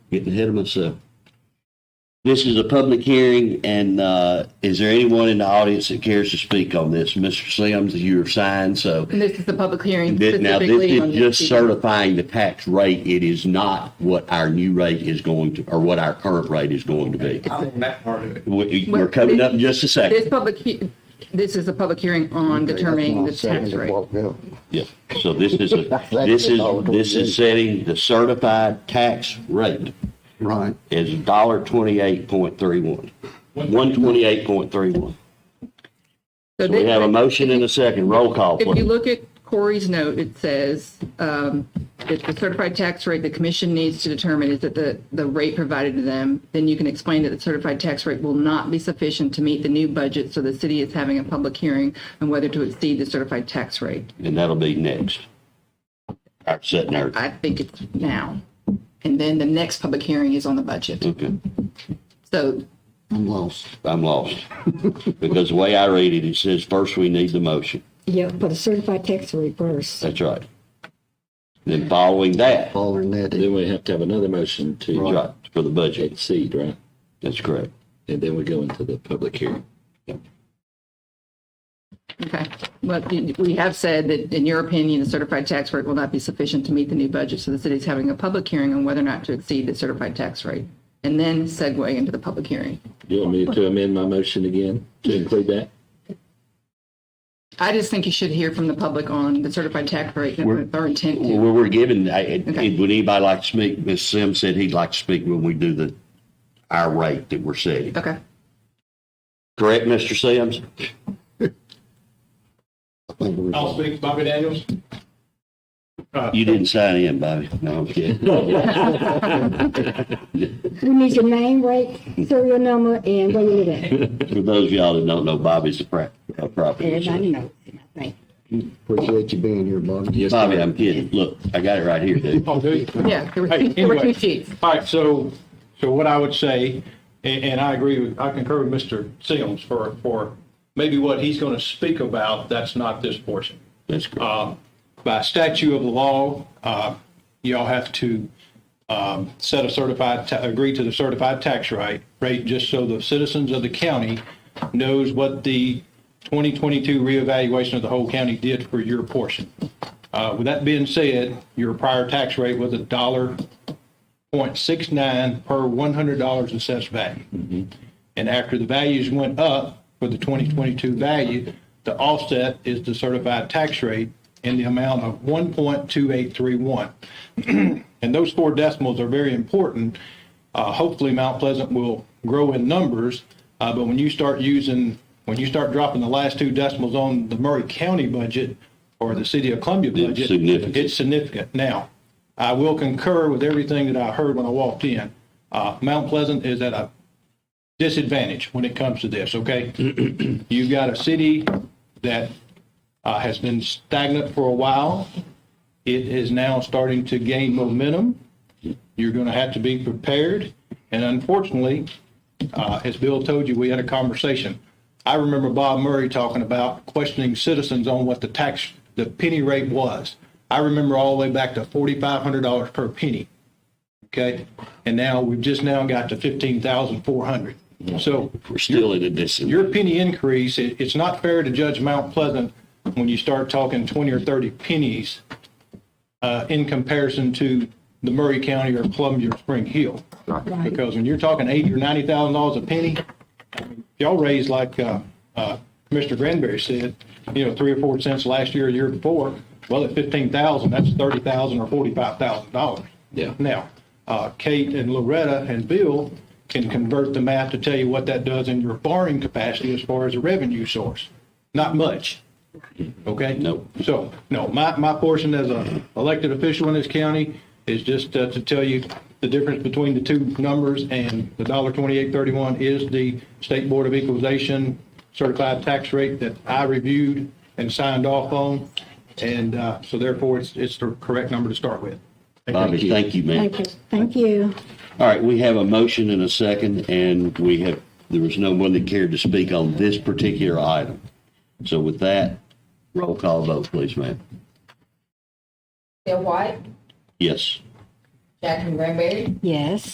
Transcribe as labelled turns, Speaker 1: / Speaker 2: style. Speaker 1: Getting ahead of myself. This is a public hearing, and uh, is there anyone in the audience that cares to speak on this? Mr. Sims, you're signed, so.
Speaker 2: And this is the public hearing
Speaker 1: Thi- Now, this
Speaker 2: Mm-hmm. specifically on
Speaker 1: is
Speaker 2: this.
Speaker 1: just certifying the tax rate. It is not what our new rate is going to, or what our current rate is going to be.
Speaker 3: I'm on that part of it.
Speaker 1: We- We're coming up in just a
Speaker 2: This
Speaker 1: second.
Speaker 2: public, he- this is a public hearing on determining the tax rate.
Speaker 1: Yeah. So this is, a- this is, this is setting the certified tax rate
Speaker 4: Right.
Speaker 1: is dollar twenty-eight point three one. One twenty-eight point three one.
Speaker 2: So
Speaker 1: So we
Speaker 2: this-
Speaker 1: have a motion and a second. Roll call,
Speaker 2: If you
Speaker 1: please.
Speaker 2: look at Corey's note, it says um, that the certified tax rate the commission needs to determine is that the, the rate provided to them. Then you can explain that the certified tax rate will not be sufficient to meet the new budget, so the city is having a public hearing on whether to exceed the certified tax rate.
Speaker 1: And that'll be next. All right, setting our,
Speaker 2: I think it's now. And then the next public hearing is on the budget.
Speaker 1: okay.
Speaker 2: So
Speaker 4: I'm lost.
Speaker 1: I'm lost. Because the way I read it, it says first we need the motion.
Speaker 5: Yeah, but a certified tax rate first.
Speaker 1: That's right. Then following that,
Speaker 4: Following that,
Speaker 6: Then we have to have another motion to
Speaker 1: right, for the budget.
Speaker 6: exceed, right?
Speaker 1: That's correct.
Speaker 6: And then we go into the public hearing.
Speaker 2: Okay. Well, you- we have said that, in your opinion, the certified tax rate will not be sufficient to meet the new budget, so the city's having a public hearing on whether or not to exceed the certified tax rate, and then segue into the public hearing.
Speaker 6: You want me to amend my motion again to include that?
Speaker 2: I just think you should hear from the public on the certified tax rate
Speaker 1: We're-
Speaker 2: and our intent to.
Speaker 1: Well, we're given, I- it-
Speaker 2: Okay.
Speaker 1: it- would anybody like to speak? Ms. Sims said he'd like to speak when we do the, our rate that we're setting.
Speaker 2: Okay.
Speaker 1: Correct, Mr. Sims?
Speaker 4: I think we
Speaker 3: I'll speak, Bobby Daniels.
Speaker 1: You didn't sign in, Bobby. No, I'm kidding.
Speaker 5: We need your name, right, serial number, and where you live at.
Speaker 1: For those of y'all that don't know, Bobby's a pra- a property.
Speaker 5: Everybody
Speaker 1: attorney.
Speaker 5: knows, I think.
Speaker 4: appreciate you being here, Bobby.
Speaker 6: Yes,
Speaker 1: Bobby,
Speaker 6: sir.
Speaker 1: I'm kidding. Look, I got it right here, dude.
Speaker 3: Oh, do you?
Speaker 2: Yeah, there were
Speaker 3: Hey,
Speaker 2: two- there were two
Speaker 3: anyway.
Speaker 2: sheets.
Speaker 3: All right, so, so what I would say, and, and I agree, with I concur with Mr. Sims for, for maybe what he's going to speak about, that's not this portion.
Speaker 1: That's correct.
Speaker 3: Uh, By statute of the law, uh, y'all have to um, set a certified, ta- agree to the certified tax rate, rate, just so the citizens of the county knows what the 2022 reevaluation of the whole county did for your portion. Uh, With that being said, your prior tax rate was a dollar point six nine per $100 assessed value. And after the values went up for the 2022 value, the offset is the certified tax rate in the amount of 1.2831. And those four decimals are very important. Uh, Hopefully, Mount Pleasant will grow in numbers, uh, but when you start using, when you start dropping the last two decimals on the Murray County budget or the City of Columbia
Speaker 1: It's
Speaker 3: budget,
Speaker 1: significant.
Speaker 3: it's significant. Now, I will concur with everything that I heard when I walked in. Uh, Mount Pleasant is at a disadvantage when it comes to this, okay? You've got a city that uh, has been stagnant for a while. It is now starting to gain momentum. You're going to have to be prepared. And unfortunately, uh, as Bill told you, we had a conversation. I remember Bob Murray talking about questioning citizens on what the tax, the penny rate was. I remember all the way back to $4,500 per penny okay? And now we've just now got to fifteen thousand four hundred. So
Speaker 1: We're still in a distance.
Speaker 3: your penny increase, it, it's not fair to judge Mount Pleasant when you start talking twenty or thirty pennies uh, in comparison to the Murray County or Columbia or Spring Hill. Because when you're talking eighty or ninety thousand dollars a penny, I mean, y'all raised like, uh, uh, Mr. Granberry said, you know, three or four cents last year, year before. Well, at fifteen thousand, that's thirty thousand or forty-five thousand dollars.
Speaker 6: Yeah.
Speaker 3: Now, uh, Kate and Loretta and Bill can convert the math to tell you what that does in your borrowing capacity as far as a revenue source. Not much. Okay?
Speaker 1: Nope.
Speaker 3: So, no, my, my portion as a elected official in this county is just uh, to tell you the difference between the two numbers and the dollar twenty-eight thirty-one is the State Board of Equalization certified tax rate that I reviewed and signed off on. And uh, so therefore, it's, it's the correct number to start with.
Speaker 1: Bobby, thank you, man.
Speaker 5: Thank you, thank you.
Speaker 1: All right, we have a motion and a second, and we have, there was no one that cared to speak on this particular item. So with that, roll call vote, please, ma'am.
Speaker 7: Bill White,
Speaker 1: Yes.
Speaker 7: Jackson Granberry,
Speaker 5: Yes.